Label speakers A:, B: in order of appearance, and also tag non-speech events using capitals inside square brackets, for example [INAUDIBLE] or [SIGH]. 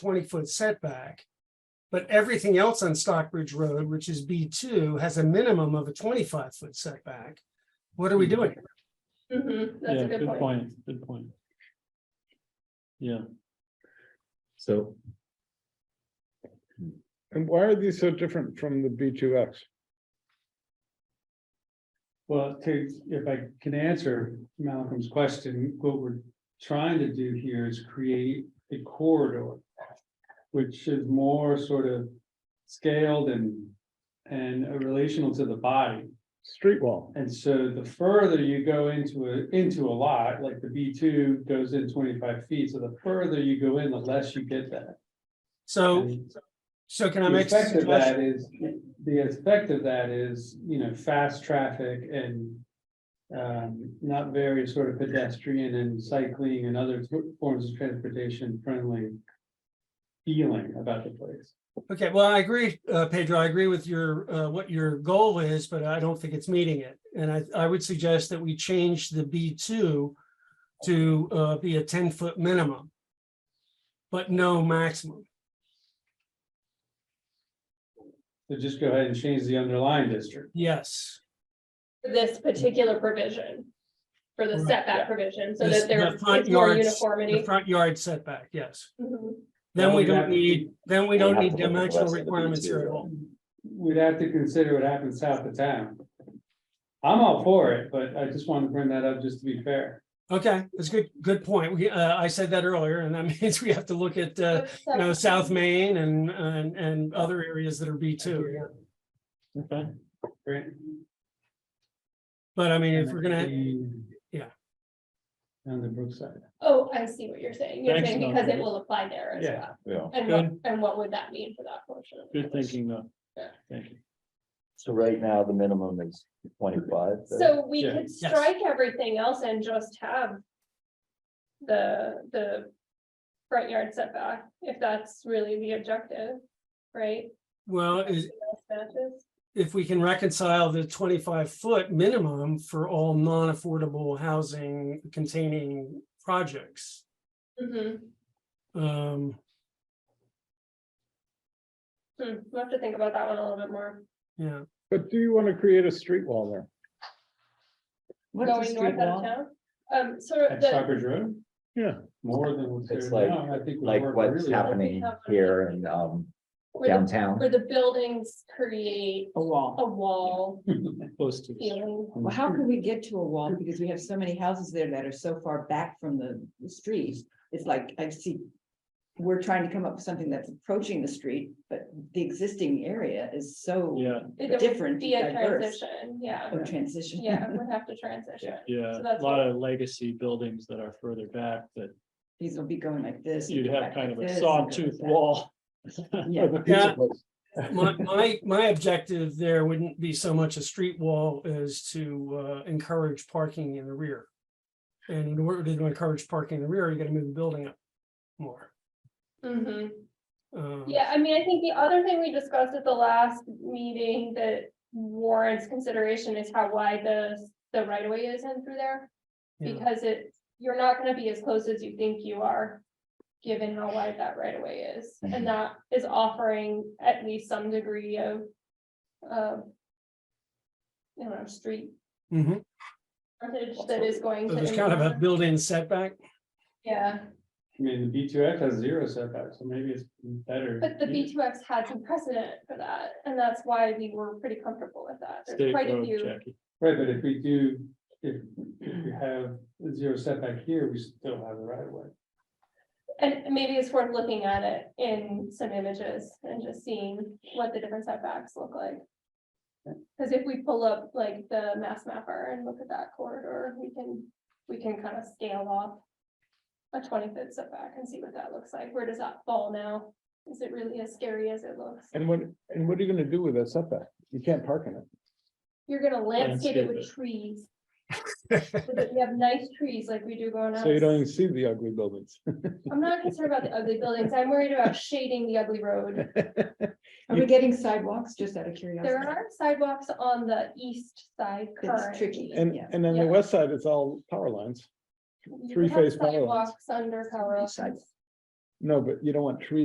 A: twenty-foot setback. But everything else on Stockbridge Road, which is B two, has a minimum of a twenty-five foot setback. What are
B: Hmm.
A: we doing?
C: Mhm, That's
B: Yeah,
C: a good point.
B: Good point. Yeah,
D: So
E: And why are these so different from the B two X?
B: well, to, if I can answer Malcolm's question, what we're trying to do here is create a corridor. Which is more sort of scaled and, and relational to the body.
E: Street wall,
B: And so the further you go into a, into a lot, like the B two goes in twenty-five feet, so the further you go in, the less you get that.
A: So, so can I
B: The
A: make? a
B: effect of that
A: suggestion?
B: is, the effect of that is, you know, fast traffic and. Um, not very sort of pedestrian and cycling and other t- forms of transportation friendly. Feeling about the place.
A: Okay, well, I agree, uh, Pedro, I agree with your, uh, what your goal is, but I don't think it's meeting it. And I, I would suggest that we change the B two to, uh, be a ten-foot minimum. But no maximum.
B: So just go ahead and change the underlying district.
A: Yes,
C: For This particular provision. For the
A: Right.
C: setback provision, so
A: This-
C: that there's
A: the front
C: it's more
A: yards- the
C: uniformity.
A: front yard setback, yes.
C: Mhm.
A: Then we don't
B: Well, we have-
A: need, then we
D: We
A: don't
D: have
A: need
D: to look at the
A: dimensional
D: rest of the
A: requirements here at
D: material.
A: all.
B: We'd have to consider what happens south of town. I'm all for it, but I just wanted to bring that up just to be fair.
A: Okay, that's a good, good point. We, uh, I said that earlier and that [LAUGHS] means we have to look at, uh, you know, South Main and, and, and other areas that are B two.
B: Okay. Great.
A: But I mean, if we're gonna,
B: Yeah.
A: yeah.
B: On the Brookside.
C: Oh, I see what you're saying. You're
B: Thanks,
C: saying because it
B: Melanie.
C: will apply there as
B: Yeah.
C: well.
D: yeah.
C: And what, and what would that mean for that portion? of the
B: Good
C: provision?
B: thinking, though.
C: Yeah.
B: Thank you.
D: So right now, the minimum is twenty-five.
C: So we
B: Yeah.
C: could strike everything else and just have. The, the. Front yard setback, if that's really the objective, right?
A: well, is,
C: Matches.
A: if we can reconcile the twenty-five foot minimum for all non-affordable housing containing projects.
C: Mhm.
A: Um,
C: Hmm, we'll have to think about that one a little bit more.
A: yeah,
E: but do you want to create a street wall there?
F: What's a
C: Going
F: street
C: north out of
F: wall?
C: town, um, sort of
B: At
C: the.
B: Stockbridge Road,
E: Yeah,
B: more than what's
D: It's
B: there
D: like-
B: now, I think. would
D: Like
B: work
D: what's
B: really well.
D: happening here in um
C: where the- Where
D: downtown.
C: the buildings create
F: A wall.
C: a wall Mm.
B: Close to.
C: feeling.
F: Oh, Well, how can we get to a wall? Because we have so many houses there that are so far back from the the street. It's like, I see. We're trying to come up with something that's approaching the street, but the existing area is so
B: Yeah,
C: It- there would
F: Different,
C: Be a
F: diverse. Oh,
C: transition, yeah,
F: a transition.
C: yeah, we'd have to transition.
B: yeah,
C: So
B: a
C: that's
B: lot of legacy buildings that are further back, that
F: [LAUGHS] These will be going like this.
B: you'd have
F: back
B: kind of
F: like
B: a
F: this,
B: sawtooth
F: back.
B: wall. [LAUGHS]
F: Yeah.
B: Of a
A: Yeah.
B: pizza place.
A: my, my, my objective there wouldn't be so much a street wall as to, uh, encourage parking in the rear. And in order to encourage parking in the rear, you gotta move the building up more.
C: hmm
A: Um,
C: Yeah, I mean, I think the other thing we discussed at the last meeting that warrants consideration is how wide the, the right of way is in through there.
A: Yeah.
C: Because it, you're not gonna be as close as you think you are, given how wide that right of way is.
D: Mhm.
A: Mm-hmm.
C: And that is offering at least some degree of, of you know, street
A: mhm.
C: frontage that is going
A: So
C: to.
A: there's kind of a
C: impact-
A: built-in setback.
C: Yeah,
B: I mean, the B two X has zero setback, so maybe it's better.
C: but the
B: You-
C: B two X had some precedent for that, and that's why we were pretty comfortable with that. There's
B: State
C: quite a
B: road,
C: few.
B: Jackie. Right, but if we do, if, if we have zero setback here, we still have the right of way.
C: And maybe it's worth looking at it in some images and just seeing what the different setbacks look like. Cause if we pull up like the mass mapper and look at that corridor, we can, we can kind of scale off. A twenty foot setback and see what that looks like. Where does that fall now? Is it really as scary as it looks?
E: and what, and what are you gonna do with that setback? You can't park in it.
C: You're gonna landscape it
B: Landscape
C: with trees. So that [LAUGHS] We have nice trees like we do going out.
E: So you don't even see the ugly buildings. [LAUGHS]
C: I'm not concerned about the ugly buildings. I'm worried about shading the ugly road.
F: Are we getting sidewalks, just out of
C: There
F: curiosity?
C: are sidewalks on the east side
F: It's tricky.
C: currently.
E: And,
F: Yeah.
E: and on
C: Yeah.
E: the west side, it's all power lines.
C: You
E: three-phase
C: have
E: power lines.
C: sidewalks Under power
F: Sidewalks.
C: lines.
E: No, but you don't want trees